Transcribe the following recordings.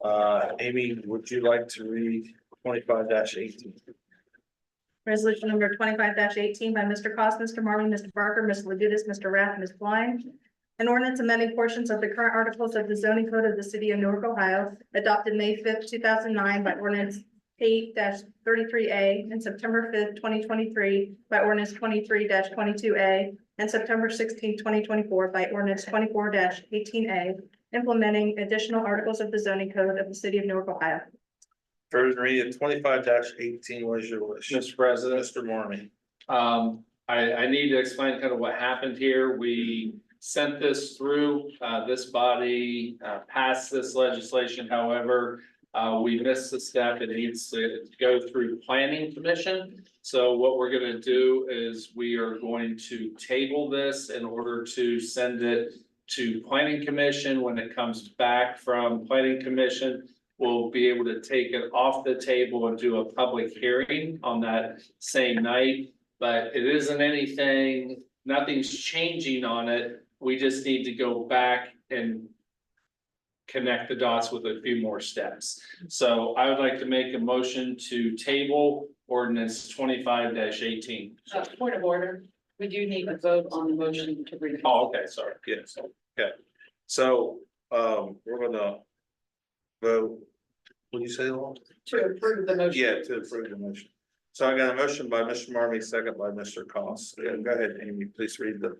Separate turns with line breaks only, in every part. Uh, Amy, would you like to read twenty-five eighteen?
Resolution number twenty-five eighteen by Mr. Cost, Mr. Marmy, Mr. Barker, Ms. Labutus, Mr. Rath, Ms. Blind. An ordinance amending portions of the current articles of the zoning code of the city of Newark, Ohio, adopted May fifth, two thousand nine by ordinance eight thirty-three A and September fifth, twenty twenty-three by ordinance twenty-three twenty-two A and September 16, 2024, by ordinance twenty-four eighteen A, implementing additional articles of the zoning code of the city of Newark, Ohio.
First reading twenty-five eighteen, what is your wish?
Mr. President,
Mr. Marmy,
um, I, I need to explain kind of what happened here. We sent this through, uh, this body, uh, passed this legislation, however. Uh, we missed the step. It needs to go through planning commission. So what we're gonna do is we are going to table this in order to send it to planning commission. When it comes back from planning commission, we'll be able to take it off the table and do a public hearing on that same night. But it isn't anything, nothing's changing on it, we just need to go back and. Connect the dots with a few more steps, so I would like to make a motion to table ordinance twenty-five eighteen.
Uh, point of order, we do need a vote on the motion to read.
Oh, okay, sorry,
yes, okay, so, um, we're gonna. Vote. what do you say, Law?
To approve the motion.
Yeah, to approve the motion. So I got a motion by Mr. Marmy, second by Mr. Cost, Yeah, go ahead, Amy, please read the.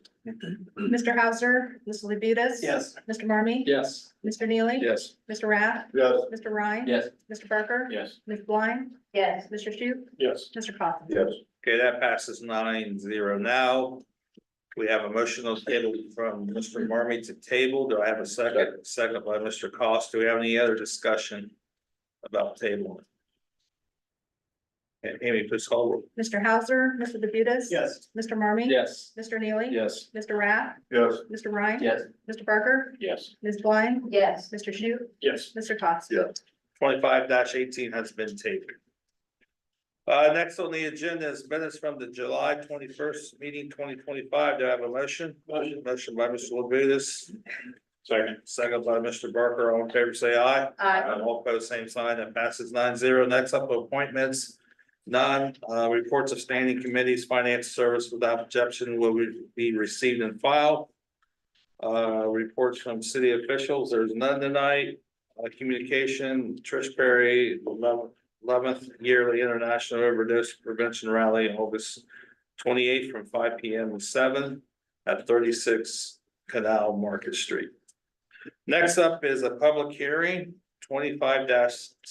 Mr. Hauser, Ms. Labutus.
Yes.
Mr. Marmy.
yes.
Mr. Neely.
Yes.
Mr. Rath.
Yes.
Mr. Ryan.
Yes.
Mr. Barker.
Yes.
Ms. Blind.
Yes.
Mr. Shu.
Yes.
Mr. Coffin.
Yes. Okay, that passes nine zero now. We have a motion on the table from Mr. Marmy to table. Do I have a second? Second by Mr. Cost. Do we have any other discussion about tabling? And Amy, please call. roll.
Mr. Hauser, Mr. Labutus.
Yes.
Mr. Marmy.
Yes.
Mr. Neely.
Yes.
Mr. Rath.
Yes.
Mr. Ryan.
Yes.
Mr. Barker.
Yes.
Ms. Blind.
Yes.
Mr. Shu.
Yes.
Mr. Coffin.
Yes. Twenty-five eighteen has been tabled. Uh, next on the agenda is minutes from the July twenty-first meeting twenty twenty-five. Do I have a motion?
Motion.
Motion by Mr. Labutus,
Second.
second by Mr. Barker. All in favor, say aye.
Aye.
Uh, All opposed, same sign, that passes nine zero. Next up, appointments. None, uh, reports of standing committees, finance service without objection will be received and filed. Uh, reports from city officials, there's none tonight. Uh, communication, Trish Perry, eleventh yearly international overdose prevention rally, August twenty-eighth from five P M to seven at thirty-six Canal Market Street. Next up is a public hearing twenty-five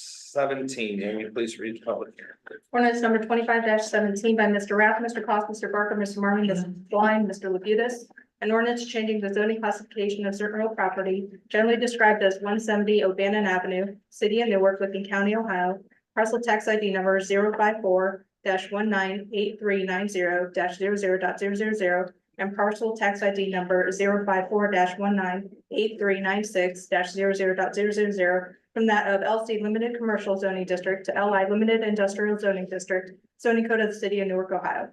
seventeen. Amy, please read the public hearing.
Ordinance number twenty-five seventeen by Mr. Rath, Mr. Cost, Mr. Barker, Mr. Marmy, Ms. Blind, Mr. Labutus. An ordinance changing the zoning classification of certain real property generally described as one seventy Obannon Avenue, City of Newark, Licking County, Ohio. Parcel tax ID number 54 one nine eight three nine zero 0 and parcel tax ID number 54 one nine eight three nine six 0 from that of LC Limited Commercial Zoning District to LI Limited Industrial Zoning District, zoning code of the city of Newark, Ohio.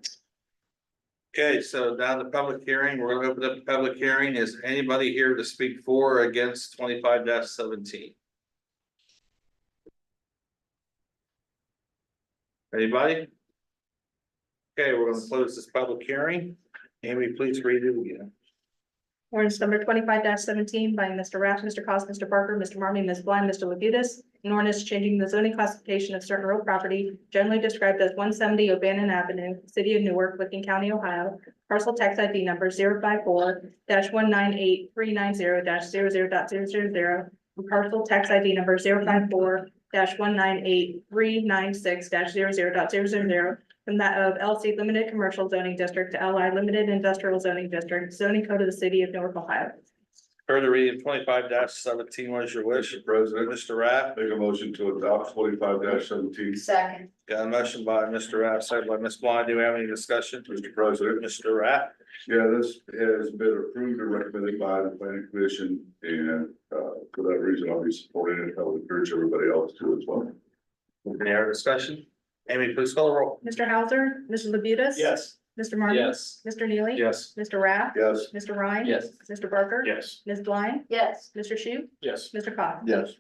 Okay, so now the public hearing, we're gonna open up the public hearing. Is anybody here to speak for or against twenty-five seventeen? Anybody? Okay, we're gonna close this public hearing. Amy, please read it again.
Ordinance number twenty-five seventeen by Mr. Rath, Mr. Cost, Mr. Barker, Mr. Marmy, Ms. Blind, Mr. Labutus. An ordinance changing the zoning classification of certain real property generally described as one seventy Obannon Avenue, City of Newark, Licking County, Ohio. Parcel tax ID number 54 one nine eight three nine zero 0 And parcel tax ID number 54 one nine eight three nine six 0 from that of LC Limited Commercial Zoning District to LI Limited Industrial Zoning District, zoning code of the city of Newark, Ohio.
Further reading twenty-five seventeen, what is your wish?
Mr. President,
Mr. Rath?
make a motion to adopt twenty-five seventeen.
Second.
Got a motion by Mr. Rath, second by Ms. Blind. Do we have any discussion?
Mr. President,
Mr. Rath,
yeah, this has been approved and recommended by the planning commission and, uh, for that reason, I'll be supporting it. I would encourage everybody else to as well.
any other discussion? Amy, please call the roll.
Mr. Hauser, Mr. Labutus.
Yes.
Mr. Marmy.
Yes.
Mr. Neely.
Yes.
Mr. Rath.
Yes.
Mr. Ryan.
Yes.
Mr. Barker.
Yes.
Ms. Blind.
Yes.
Mr. Shu.
Yes.
Mr. Cobb.
Yes.